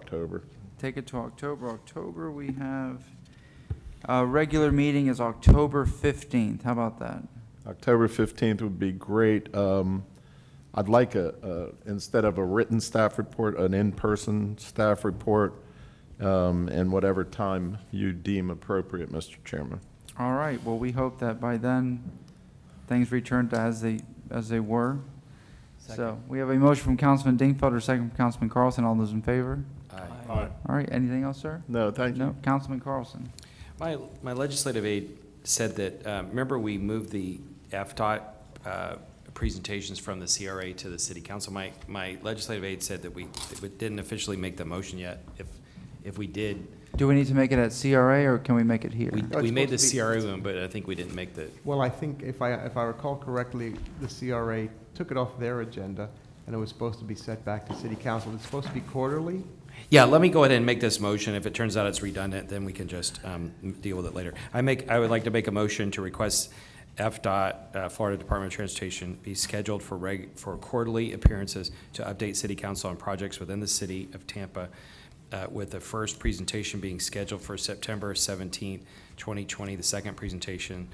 October. Take it to October. October, we have, uh, regular meeting is October fifteenth. How about that? October 15th would be great. Um, I'd like a, a- instead of a written staff report, an in-person staff report, um, and whatever time you deem appropriate, Mr. Chairman. All right, well, we hope that by then, things return to as they, as they were. So, we have a motion from Councilman Dingfelter, second from Councilman Carlson. All those in favor? All right, anything else, sir? No, thank you. No, Councilman Carlson. My, my legislative aide said that, uh, remember we moved the FDOT uh, presentations from the CRA to the city council? My, my legislative aide said that we that we didn't officially make the motion yet. If, if we did, Do we need to make it at CRA, or can we make it here? we, it's we made the supposed to be- CRA one, but I think we didn't make the, Well, I think if I, if I recall correctly, the CRA took it off their agenda, and it was supposed to be sent back to city council. It's supposed to be quarterly? yeah, let me go ahead and make this motion. If it turns out it's redundant, then we can just um, deal with it later. I make, I would like to make a motion to request FDOT, uh, Florida Department of Transportation, be scheduled for reg, for quarterly appearances to update city council on projects within the city of Tampa, uh, with the first presentation being scheduled for September seventeenth, twenty twenty, the second presentation,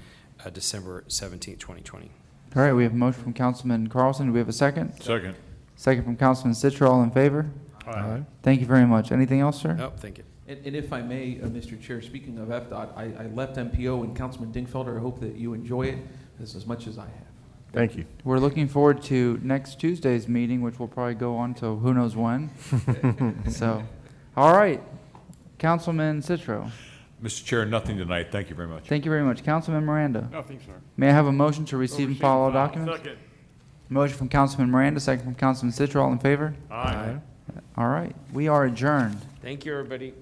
uh, December seventeenth, twenty twenty. All right, we have a motion from Councilman Carlson. Do we have a second? Second. Second from Councilman Citro. All in favor? Aye. Thank you very much. Anything else, sir? Oh, thank you. And, and if I may, uh, Mr. Chair, speaking of FDOT, I, I left MPO and Councilman Dingfelder. I hope that you enjoy it as, as much as I have. Thank you. We're looking forward to next Tuesday's meeting, which will probably go on till who knows when. So, all right, Councilman Citro, Mr. Chair, nothing tonight. Thank you very much. thank you very much. Councilman Miranda. Nothing, sir. May I have a motion to receive and file all documents? Second. Motion from Councilman Miranda, second from Councilman Citro, all in favor? Aye. All right, we are adjourned. Thank you, everybody.